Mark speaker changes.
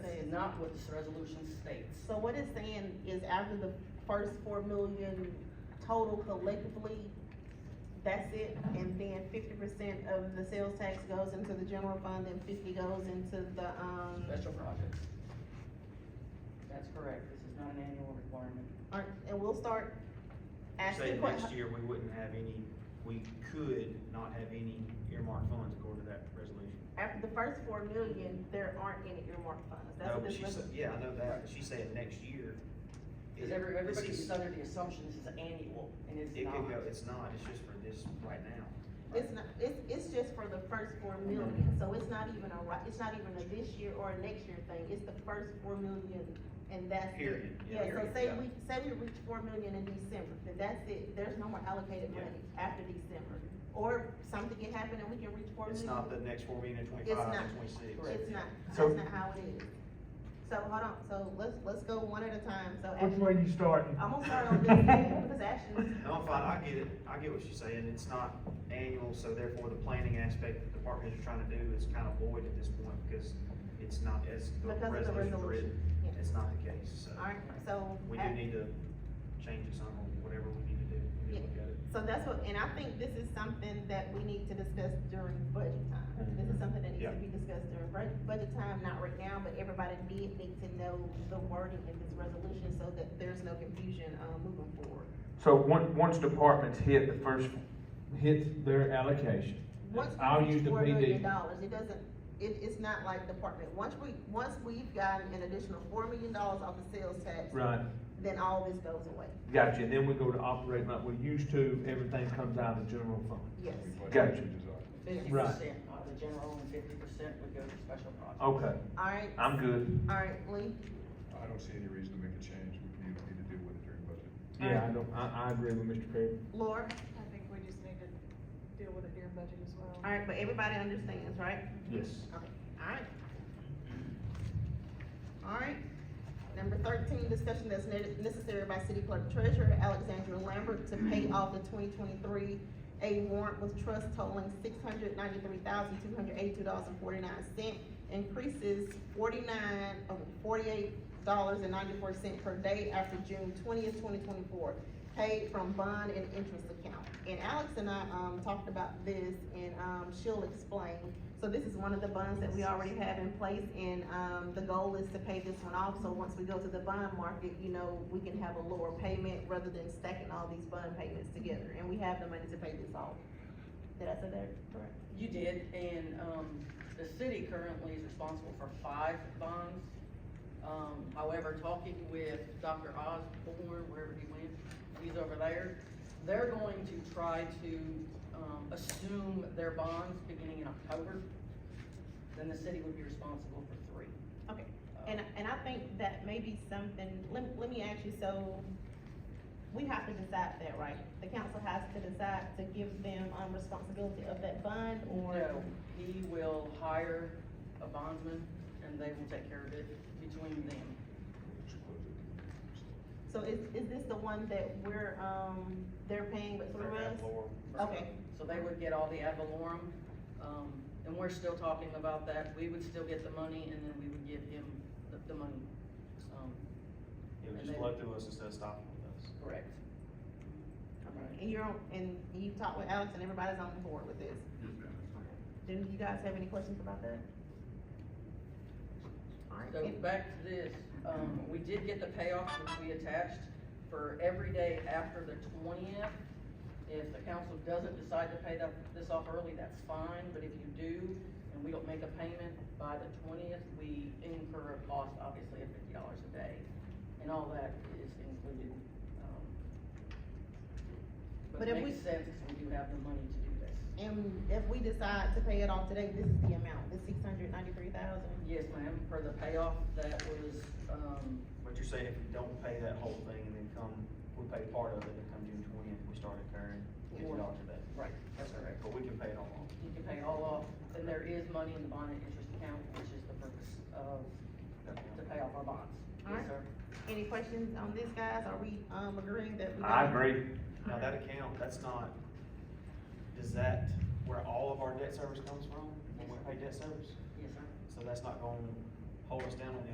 Speaker 1: not what this resolution states.
Speaker 2: So what it's saying is after the first four million total collectively, that's it, and then fifty percent of the sales tax goes into the general fund, and fifty goes into the, um,
Speaker 1: Special projects. That's correct, this is not an annual requirement.
Speaker 2: aren't, and we'll start asking
Speaker 3: Say
Speaker 2: questions.
Speaker 3: next year, we wouldn't have any, we could not have any earmarked funds according to that resolution.
Speaker 2: After the first four million, there aren't any earmarked funds, that's
Speaker 3: No,
Speaker 2: what
Speaker 3: but
Speaker 2: this
Speaker 3: she said,
Speaker 2: resolution.
Speaker 3: yeah, I know that, but she said next year.
Speaker 1: Because
Speaker 3: it-
Speaker 1: every,
Speaker 3: this
Speaker 1: everybody's
Speaker 3: is-
Speaker 1: under the assumption this is annual, and it's
Speaker 3: It could
Speaker 1: not.
Speaker 3: go, it's not, it's just for this right now.
Speaker 2: It's not, it's, it's just for the first four million, so it's not even a, ri- it's not even a this year or a next year thing, it's the first four million, and that's it.
Speaker 3: Period, yeah,
Speaker 2: Yeah, so
Speaker 3: period,
Speaker 2: say
Speaker 3: yeah.
Speaker 2: we, say we reach four million in December, then that's it, there's no more allocated
Speaker 3: Yeah.
Speaker 2: money after December. Or something can happen and we can reach four
Speaker 3: It's
Speaker 2: million.
Speaker 3: not the next four million and twenty-five and twenty-six.
Speaker 2: It's not,
Speaker 4: So-
Speaker 2: that's not how it is. So, hold on, so let's, let's go one at a time, so.
Speaker 4: Which
Speaker 2: Ashley-
Speaker 4: way you starting?
Speaker 2: I'm gonna start on this end, because Ashley's.
Speaker 3: No, I'm fine, I get it, I get what she's saying, it's not annual, so therefore the planning aspect that the park is trying to do is kind of void at this point, because it's not, as
Speaker 2: Because
Speaker 3: the
Speaker 2: of the
Speaker 3: resolution's
Speaker 2: resolution,
Speaker 3: written,
Speaker 2: yeah.
Speaker 3: it's not the case, so.
Speaker 2: Alright, so.
Speaker 3: We do
Speaker 2: Ash-
Speaker 3: need to change it somehow, whatever we need to do, we need to look at it.
Speaker 2: So that's what, and I think this is something that we need to discuss during budget time.
Speaker 4: Mm-hmm.
Speaker 2: This is something that needs to
Speaker 3: Yeah.
Speaker 2: be discussed during bud- budget time, not right now, but everybody did need to know the wording in this resolution so that there's no confusion, uh, moving forward.
Speaker 4: So one, once departments hit the first, hit their allocation,
Speaker 2: Once we
Speaker 4: I'll
Speaker 2: reach
Speaker 4: use the
Speaker 2: four million
Speaker 4: PD.
Speaker 2: dollars, it doesn't, it, it's not like department, once we, once we've gotten an additional four million dollars off the sales tax,
Speaker 4: Right,
Speaker 2: then all this goes away,
Speaker 4: gotcha, and then we go to operating like we used to, everything comes out of the general fund.
Speaker 2: yes.
Speaker 4: Gotcha.
Speaker 1: Fifty
Speaker 4: Right.
Speaker 1: percent of the general and fifty percent would go to special projects.
Speaker 4: Okay,
Speaker 2: All right,
Speaker 4: I'm good.
Speaker 2: all right, Lee,
Speaker 5: I don't see any reason to make a change, we need, need to deal with it during budget.
Speaker 4: Yeah, I don't, I, I agree with Mr. Perry.
Speaker 2: Laura,
Speaker 6: I think we just need to deal with it during budget as well.
Speaker 2: all right, but everybody understands, right?
Speaker 4: Yes.
Speaker 2: Okay, alright. Alright, number thirteen, discussion that's ne- necessary by city clerk treasurer Alexandra Lambert to pay off the twenty twenty-three A warrant with trust totaling six hundred ninety-three thousand, two hundred eighty-two dollars and forty-nine cent, increases forty-nine, oh, forty-eight dollars and ninety-four cent per day after June twentieth, twenty twenty-four, paid from bond and interest account. And Alex and I, um, talked about this, and, um, she'll explain. So this is one of the bonds that we already have in place, and, um, the goal is to pay this one off, so once we go to the bond market, you know, we can have a lower payment rather than stacking all these bond payments together, and we have the money to pay this off. Did I say that correct?
Speaker 1: You did, and, um, the city currently is responsible for five bonds. Um, however, talking with Dr. Osborne, wherever he went, he's over there, they're going to try to, um, assume their bonds beginning in October. Then the city would be responsible for three.
Speaker 2: Okay,
Speaker 1: Uh,
Speaker 2: and, and I think that may be something, let, let me ask you, so we have to decide that, right? The council has to decide to give them, um, responsibility of that bond, or?
Speaker 1: No, he will hire a bondsman and they will take care of it between them.
Speaker 5: Just close it.
Speaker 2: So is, is this the one that we're, um, they're paying but through us? Okay.
Speaker 1: So they would get all the ad valorem, um, and we're still talking about that, we would still get the money and then we would give him the, the money. Um,
Speaker 3: It
Speaker 1: And
Speaker 3: would just
Speaker 1: then-
Speaker 3: flow through us instead of stopping with us.
Speaker 1: Correct.
Speaker 2: And you're, on- and you've talked with Alex and everybody's on board with this. Do you guys have any questions about that? Alright,
Speaker 1: So
Speaker 2: and-
Speaker 1: back to this, um, we did get the payoff which we attached for every day after the twentieth. If the council doesn't decide to pay that, this off early, that's fine, but if you do, and we don't make a payment by the twentieth, we incur a cost, obviously, of fifty dollars a day. And all that is included, um. But
Speaker 2: But if
Speaker 1: it
Speaker 2: we-
Speaker 1: makes sense, 'cause we do have the money to do this.
Speaker 2: and if we decide to pay it off today, this is the amount, the six hundred ninety-three thousand?
Speaker 1: Yes, ma'am, for the payoff, that was, um,
Speaker 3: But you're saying if we don't pay that whole thing and then come, we pay part of it and come June twentieth, we start incurring fifty dollars a day.
Speaker 1: right, that's correct.
Speaker 3: But we can pay it all off.
Speaker 1: you can pay all off, and there is money in the bond and interest account, which is the purpose of, to pay off our bonds. Yes,
Speaker 2: Alright.
Speaker 1: sir.
Speaker 2: Any questions on this, guys? Are we, um, agreeing that we?
Speaker 4: I agree.
Speaker 3: Now, that account, that's not, is that where all of our debt service comes from? When we pay debt service?
Speaker 1: Yes, sir.
Speaker 3: So that's not gonna hold us down on the